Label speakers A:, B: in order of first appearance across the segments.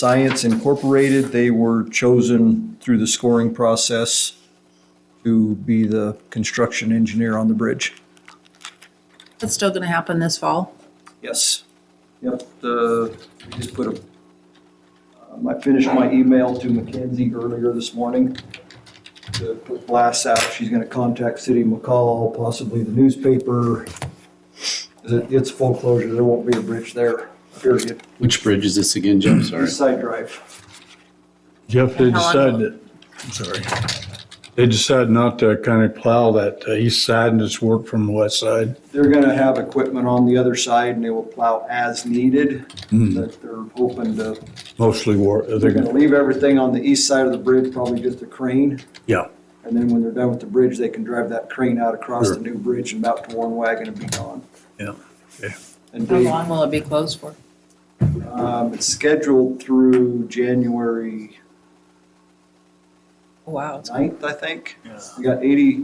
A: Science Incorporated. They were chosen through the scoring process to be the construction engineer on the bridge.
B: That's still gonna happen this fall.
A: Yes. Yep, the, we just put a, um, I finished my email to Mackenzie earlier this morning to put blasts out. She's gonna contact City McCall, possibly the newspaper. It- It's full closure. There won't be a bridge there, period.
C: Which bridge is this again, Jim? Sorry.
A: East Side Drive.
D: Jeff, they
B: And how long
D: decided, that- I'm sorry, they decided not to kind of plow that uh, east side and just work from the west side.
A: They're gonna have equipment on the other side and they will plow as needed. But they're hoping to,
D: Mostly war,
A: they're
D: uh, Hmm. they're
A: gonna
D: gonna,
A: leave everything on the east side of the bridge, probably just a crane.
D: yeah,
A: And then when they're done with the bridge, they can drive that crane out across the
D: Sure.
A: new bridge and out to Warren Wagon and be gone.
D: yeah.
A: And
B: How
A: Dave,
B: long will it be closed for?
A: um, it's scheduled through January
B: Oh, Wow, it's-
A: ninth, I think. We got 80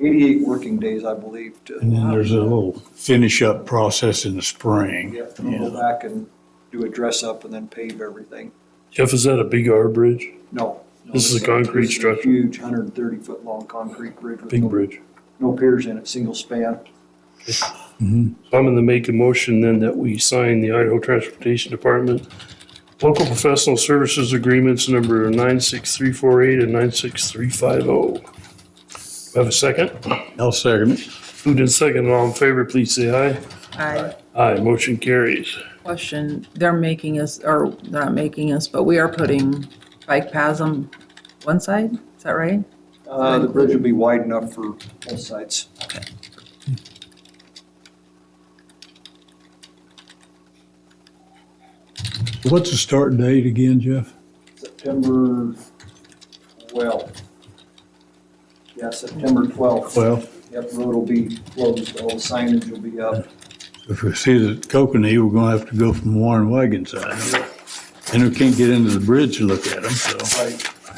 A: 88 working days, I believe,
D: And
A: to,
D: then there's a little finish up process in the spring.
A: yeah, to go
D: Yeah.
A: back and do a dress up and then pave everything.
E: Jeff, is that a big R bridge?
A: No. no,
E: This is a
A: it's
E: concrete
A: this is a
E: structure.
A: Huge, hundred and thirty foot long concrete bridge with
E: Big
A: no,
E: bridge.
A: no piers in it, single span.
E: So I'm going to make a motion then that we sign the Idaho Transportation Department Local Professional Services Agreements number 96348 and 96350. oh. Have a second?
D: I'll second it.
E: Moved in second, all in favor, please say aye.
B: I
E: Aye, motion carries.
B: question, they're making us, or they're not making us, but we are putting bike paths on one side, is that right?
A: Uh, the bridge will be wide enough for both sides.
D: What's the start date again, Jeff?
A: September twelfth. Yeah, September twelfth.
D: Well,
A: Yep, road will be closed, all signage will be up.
D: if we see the Kokanee, we're gonna have to go from Warren Wagon side. And we can't get into the bridge to look at them, so.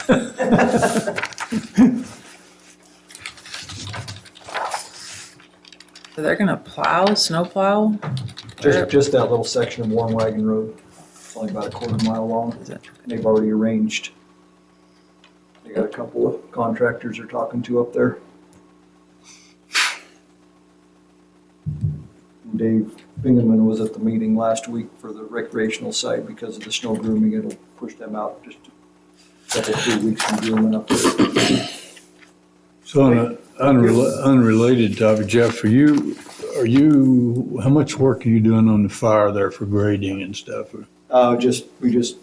A: Right.
B: So they're gonna plow, snow plow?
A: Just, just that little section of Warren Wagon Road. It's only about a quarter mile long,
B: Is it-
A: and they've already arranged. They got a couple of contractors they're talking to up there. And Dave Bingaman was at the meeting last week for the recreational side because of the snow grooming. It'll push them out just a couple, three weeks from grooming up there.
D: So on an unrelated topic, Jeff, are you, are you, how much work are you doing on the fire there for grading and stuff?
A: Uh, just, we just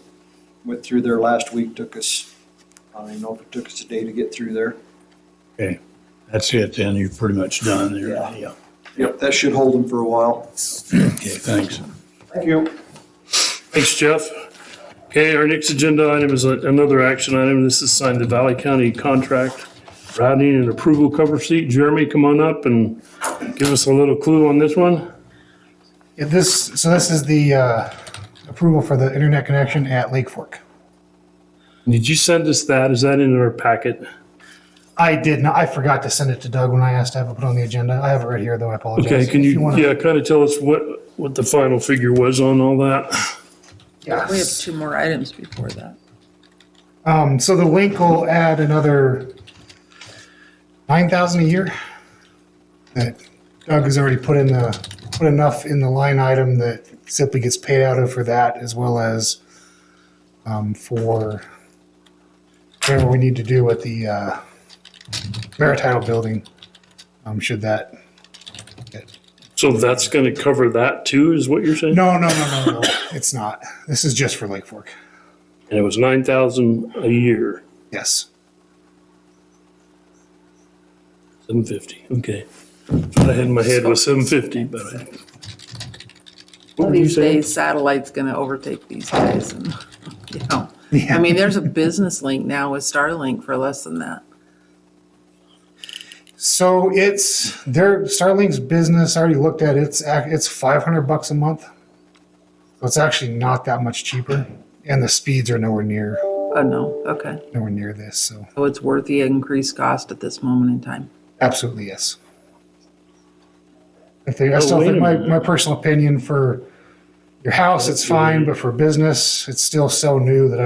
A: went through there last week, took us, I don't even know if it took us a day to get through there.
D: Okay, that's it then, you're pretty much done there.
A: Yeah.
D: Yeah.
A: Yep, that should hold them for a while.
D: Okay, thanks.
A: Thank you.
E: Thanks, Jeff. Okay, our next agenda item is a- another action item. This is signed the Valley County contract routing and approval cover sheet. Jeremy, come on up and give us a little clue on this one.
F: Yeah, this, so this is the uh, approval for the internet connection at Lake Fork.
E: Did you send us that? Is that in our packet?
F: I did not, I forgot to send it to Doug when I asked to have it put on the agenda. I have it right here, though, I apologize.
E: Okay, can
F: If
E: you,
F: wanna-
E: yeah, kind of tell us what, what the final figure was on all that?
B: We have two more items before that.
F: Um, so the link will add another nine thousand a year. That Doug has already put in the, put enough in the line item that simply gets paid out of for that as well as um, for whatever we need to do with the uh, Maritile building, um, should that.
E: So that's going to cover that too, is what you're saying?
F: No, no, no, no, no, it's not. This is just for Lake Fork.
E: And it was nine thousand a year,
F: Yes.
E: seven fifty, okay. What I had in my head was seven fifty, but I. What were you
B: These
E: saying?
B: days satellite's gonna overtake these guys and, you know. I
F: Yeah.
B: mean, there's a business link now with Starlink for less than that.
F: So it's their Starlink's business. I already looked at it. it's ac- it's five hundred bucks a month, so it's actually not that much cheaper, and the speeds are nowhere near
B: Oh, no, okay.
F: nowhere near this. So
B: So it's worth the increased cost at this moment in time.
F: absolutely yes. If they, I
E: Oh,
F: still
E: wait
F: think
E: a
F: my,
E: minute.
F: my personal opinion for your house, it's fine, but for business, it's still so new that